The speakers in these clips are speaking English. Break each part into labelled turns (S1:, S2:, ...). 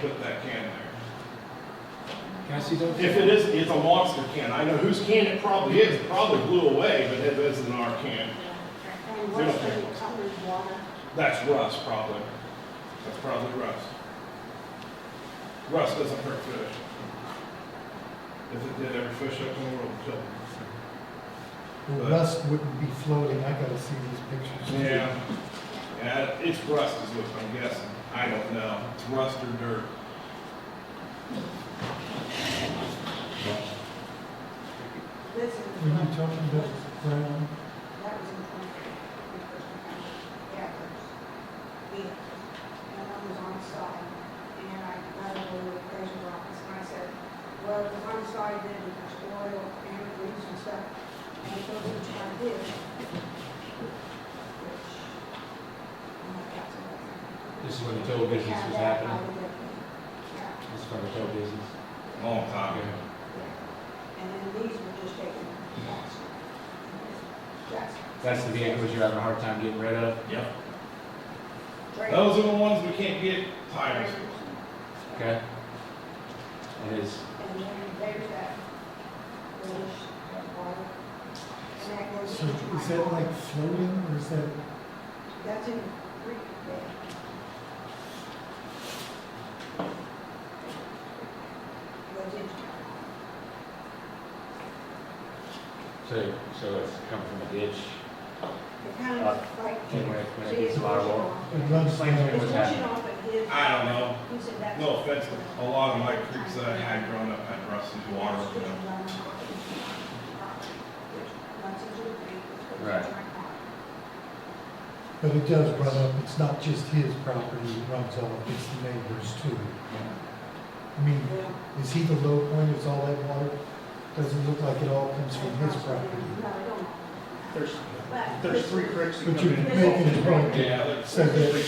S1: put that can there.
S2: Can I see that?
S1: If it is, it's a monster can, I know whose can it probably is, It probably blew away, but it isn't our can.
S3: And what's the colored water?
S1: That's rust, probably. That's probably rust. Rust doesn't hurt fish. If it did, every fish up in the world would kill it.
S4: The rust wouldn't be floating, I gotta see these pictures.
S1: Yeah. Yeah, it's rust is what I'm guessing. I don't know. It's rust or dirt.
S3: This is.
S4: Were you talking about brown?
S3: That was in twenty, yeah, yeah. And I was on site, and I got a little appraisal office, and I said, well, the on site did it was oil and grease and stuff, and it goes into our bid. Which, I'm not that sure.
S2: This is when the total business
S3: Yeah,
S2: was
S3: that I
S2: happening.
S3: would definitely- yeah.
S2: This is from the tow business.
S1: Long time ago.
S3: And then these were just taken, that's, that's.
S2: That's the vehicles you're having a hard time getting rid of.
S1: Yep.
S3: Trailers.
S2: Oh,
S1: Those are the ones we can't get tires
S3: Trailers.
S1: for.
S2: Okay. It is.
S3: And then there's that bridge, that water. And that goes
S4: So
S3: into my
S4: is that like
S3: yard.
S4: floating or is that,
S3: That's in the creek bed. Goes into my yard.
S2: So, so it's coming from a ditch.
S3: It kind of
S2: Uh,
S3: like.
S2: and when it- when it
S3: See,
S2: gets
S3: it's
S2: a lot of
S3: washing
S2: water.
S3: off.
S4: it runs
S2: Like
S4: down?
S2: it
S3: It's
S2: was
S3: washing
S2: happening.
S3: off at his.
S1: I don't know.
S3: He said that's.
S1: No offense, but a lot of my creeks that I had growing up had rust and water, you know.
S3: Runs into the creek, which goes into
S2: Right.
S3: my yard.
S4: But it does run up, it's not just his property, it runs all up, it's the neighbors too. I mean,
S3: Well,
S4: is he the low point, is all that water, doesn't look like it all comes from his property.
S3: property.
S5: There's, there's three creeks. that
S4: But
S5: come
S4: you're
S5: in.
S4: making it wrong,
S1: Yeah, there's-
S4: So the-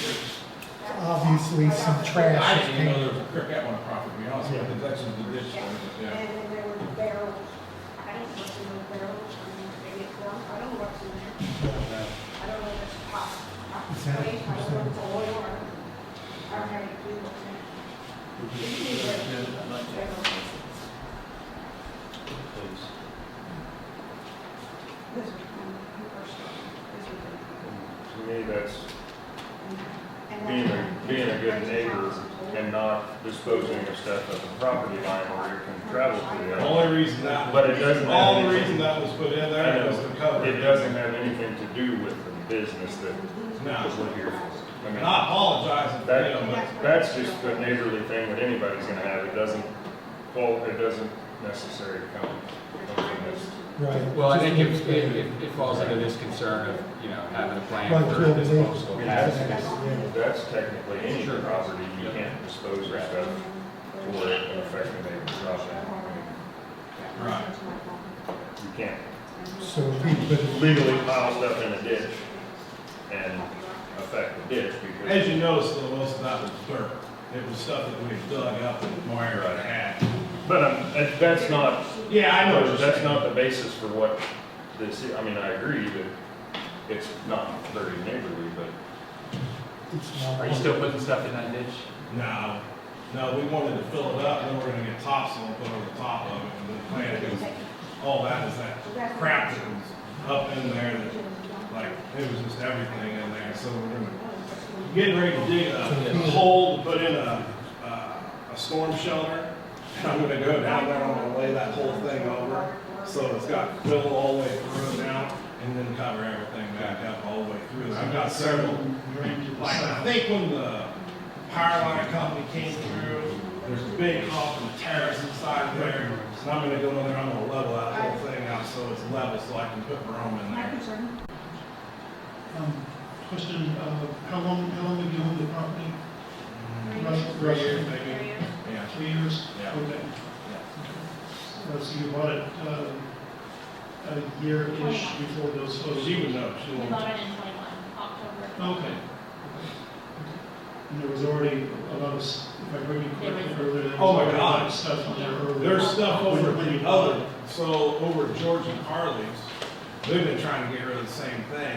S4: obviously some trash.
S1: I didn't even know there was a creek at my property, to be honest with you. That's just the ditch,
S3: And
S1: yeah.
S3: then there were barrels. I don't know what's in those barrels, I mean, they get drunk, I don't know what's in there. I don't know if it's pop, pop,
S4: Is that-
S3: space, I don't know if it's oil or, I don't know how to do what's in it. This is from the first one. This is
S6: To me, that's
S3: the- and
S6: being a,
S3: that's-
S6: being a good neighbor and not disposing of stuff at the property line where it can travel through
S1: The
S6: it.
S1: only reason that,
S6: But it doesn't
S1: all
S6: have
S1: the reason
S6: anything,
S1: that was put in
S6: I
S1: there was to
S6: know,
S1: cover.
S6: it doesn't have anything to do with the business that
S1: No.
S6: we're here for. I
S1: And
S6: mean,
S1: I apologize if,
S6: That,
S1: you know, but
S6: that's just a neighborly thing that anybody's gonna have, it doesn't, well, it doesn't necessarily come.
S4: Right.
S2: Well, I think it,
S4: Just-
S2: it, it- it falls under this concern of, you know, having a plan
S4: Like,
S2: for
S4: yeah, they-
S2: disposal of hazardous.
S4: Yeah.
S6: That's technically any
S2: Sure.
S6: property, you can't dispose of stuff to where it can affect the neighbor's property.
S1: Right.
S6: You can't
S4: So we put it
S6: legally pile stuff in a ditch and affect the ditch
S1: as
S6: because
S1: you notice, though, most of that was dirt. It was stuff that we dug up and Meyer had had.
S6: But um, that- that's not,
S1: Yeah, I know what you're
S6: that's
S1: saying.
S6: not the basis for what this, is. I mean, I agree that it's not very neighborly, but
S4: It's not.
S2: Are you still putting stuff in that ditch?
S1: No, no, we wanted to fill it up, then we're gonna get topsoil put over the top of it, and the plant is, all that is that crap that was up in there that like, it was just everything in there, so we're gonna, getting ready to dig a hole to put in a, uh, a storm shelter. And I'm gonna go down there, I'm gonna lay that whole thing over, so it's got fill all the way through now, and then cover everything back up all the way through. I've got several,
S7: Um,
S1: like, I think when the power line company came through, there's a big hump and terrace inside there, and I'm gonna go in there, I'm gonna level that whole thing out, so it's level, so I can put room in
S3: My
S1: there.
S3: concern,
S7: Um, Question, uh, how long, how long have you owned the property? Right,
S1: Three years,
S7: right.
S1: maybe, yeah.
S7: Three years?
S1: Yeah.
S7: Okay. Uh, So you bought it uh, a year-ish before those photos?
S1: She would know, she
S8: We
S1: would.
S8: bought it in twenty-one, October.
S1: Oh,
S7: Okay. And there was already a lot of, s- if I heard you correctly earlier. there was
S1: Oh my
S7: already a lot of
S1: God.
S7: Stuff on there earlier.
S1: There's stuff over
S7: When you
S1: the
S7: bought it.
S1: other, so over George and Carly's, they've been trying to get rid of the same thing.